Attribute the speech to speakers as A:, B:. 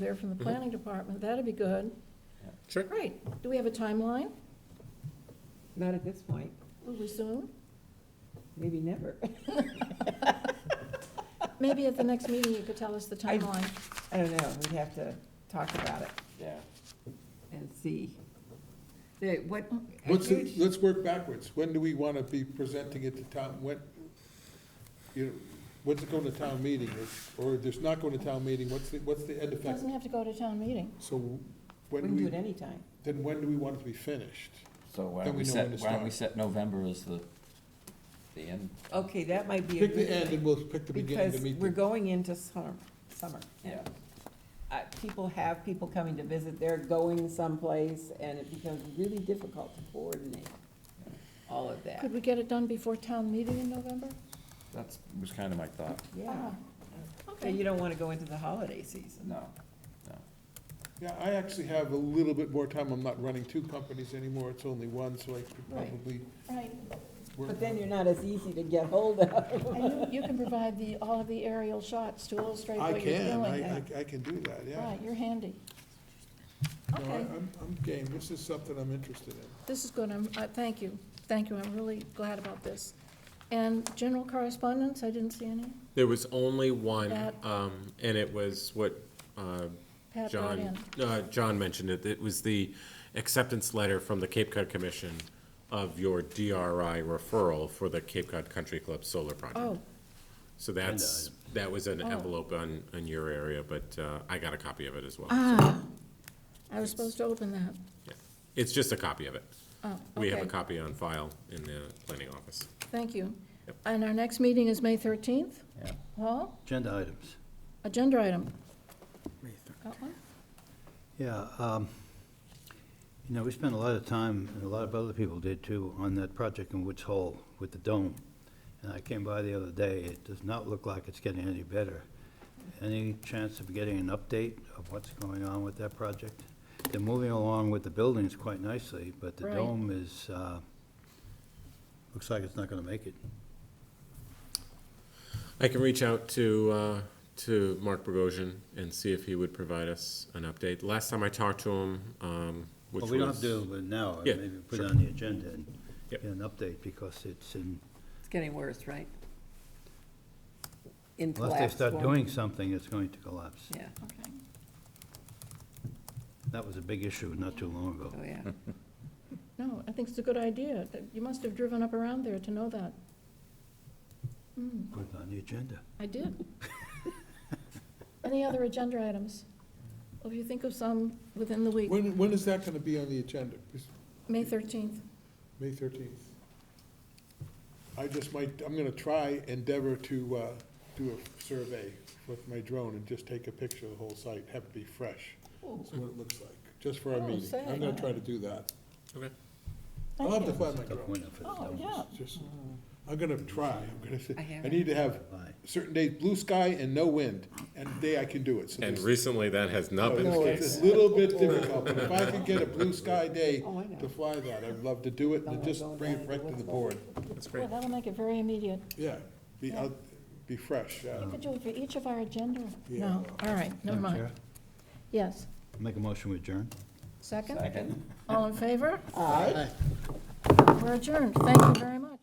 A: there from
B: Mm-hmm.
A: the planning department, that'd be good.
C: Sure.
A: Great, do we have a timeline?
D: Not at this point,
A: Will we soon?
D: maybe never.
A: Maybe at the next meeting you could tell us the
D: I-
A: timeline.
D: I don't know, we'd have to talk about it
C: Yeah.
D: and see. The, what, I
B: Let's,
D: do-
B: let's work backwards. When do we want to be presenting it to town, when, you know, when's it going to town meeting? Is- Or if there's not going to town meeting, what's the, what's the end
A: It
B: effect?
A: Doesn't have to go to town meeting.
B: So
D: we
B: when do
D: can do it
B: we,
D: anytime.
B: then when do we want it to be finished?
C: So why don't
B: Then we
C: we
B: know
C: set,
B: when to
C: why don't we
B: start.
C: set November as the, the end?
D: Okay, that might be. a
B: Pick
D: good
B: the end
D: thing,
B: and we'll pick the beginning to
D: Because
B: meet
D: we're
B: the,
D: going into summer, summer.
C: Yeah.
D: Uh, people have people coming to visit, they're going someplace, and it becomes really difficult to coordinate all of that.
A: Could we get it done before town meeting in November?
C: That's, was kind of my thought.
D: Yeah, so
A: Ah. Okay.
D: you don't wanna go into the holiday season.
C: No, no.
B: yeah, I actually have a little bit more time. I'm not running two companies anymore. It's only one, so I could
D: Right.
B: probably
A: Right,
B: work.
D: But then you're not as easy to get hold of.
A: and you, you can provide the, all of the aerial shots to illustrate
B: I
A: what you're
B: can,
A: doing.
B: I, I- I can do that, yeah.
A: Right, you're handy.
B: No, I-
A: Okay,
B: I'm, I'm game. This is something I'm interested in.
A: this is good, I'm, I, thank you, thank you, I'm really glad about this. And general correspondence, I didn't see any.
E: There was only one,
A: That-
E: um, and it was what, uh,
A: Pat brought in.
E: John, uh, John mentioned it, it was the acceptance letter from the Cape Cod Commission of your DRI referral for the Cape Cod Country Club solar
A: Oh,
E: project. So that's, that was an envelope on, on your area, but, uh, I got a copy of it as well. so-
A: ah, I was supposed to open that.
E: yeah. It's just a copy of it.
A: Oh,
E: We have a
A: okay.
E: copy on file in the planning office.
A: Thank you.
E: Yep.
A: And our next meeting is May 13th?
C: Yeah.
A: Paul,
F: Agenda items.
A: agenda item. Got one?
F: Yeah, um, you know, we spent a lot of time, and a lot of other people did too, on that project in Woods Hole with the dome. And I came by the other day, it does not look like it's getting any better. Any chance of getting an update of what's going on with that project? They're moving along with the buildings quite nicely, but the
A: Right.
F: dome is, uh, looks like it's not gonna make it.
E: I can reach out to, uh, to Mark Bogosian and see if he would provide us an update. Last time I talked to him, um, which
F: Well,
E: was.
F: we don't have to do it now,
E: Yeah,
F: maybe put
E: sure.
F: it on the agenda and
E: Yep.
F: get an update, because it's in
D: It's getting worse, right? In
F: Unless they
D: collapse
F: start
D: form.
F: doing something, it's going to collapse.
D: Yeah,
A: Okay.
F: That was a big issue not too long ago.
D: oh, yeah.
A: No, I think it's a good idea. You must have driven up around there to know that. Hmm,
F: Put it on the agenda.
A: I did. Any other agenda items? If you think of some within the week,
B: When, when is that going to be on the agenda? Is-
A: May 13th.
B: May thirteenth. I just might, I'm gonna try endeavor to, uh, do a survey with my drone and just take a picture of the whole site, have it be fresh. That's what it looks like, just for our
A: Oh,
B: meeting.
A: say.
B: I'm gonna try to do that.
E: Okay.
B: I'll have to find my
F: It's a tough
B: drone.
F: winner for the
A: Oh,
F: Dodgers.
A: yeah.
B: Just, I'm gonna try, I'm gonna,
D: I
B: say-
D: have
B: I
D: it.
B: need to have
F: Bye.
B: certain days, blue sky and no wind, and the day I can do it. So
E: And
B: there's-
E: recently, that has not been
B: No,
E: the
B: Oh, it's
E: case.
B: a little bit difficult, but if I could get a blue sky day
D: Oh, I know.
B: to fly that, I'd love to do it and just bring it right to the board.
E: That's
A: Well,
E: great.
A: that'll make it very immediate.
B: Yeah, be out, be fresh, yeah.
A: Could do it for each of our agenda?
B: Yeah.
A: No, all right, never
F: Madam
A: mind.
F: Chair,
A: Yes.
F: Make a motion to adjourn.
A: Second?
C: Second.
A: All in favor?
B: All right.
A: We're adjourned. Thank you very much.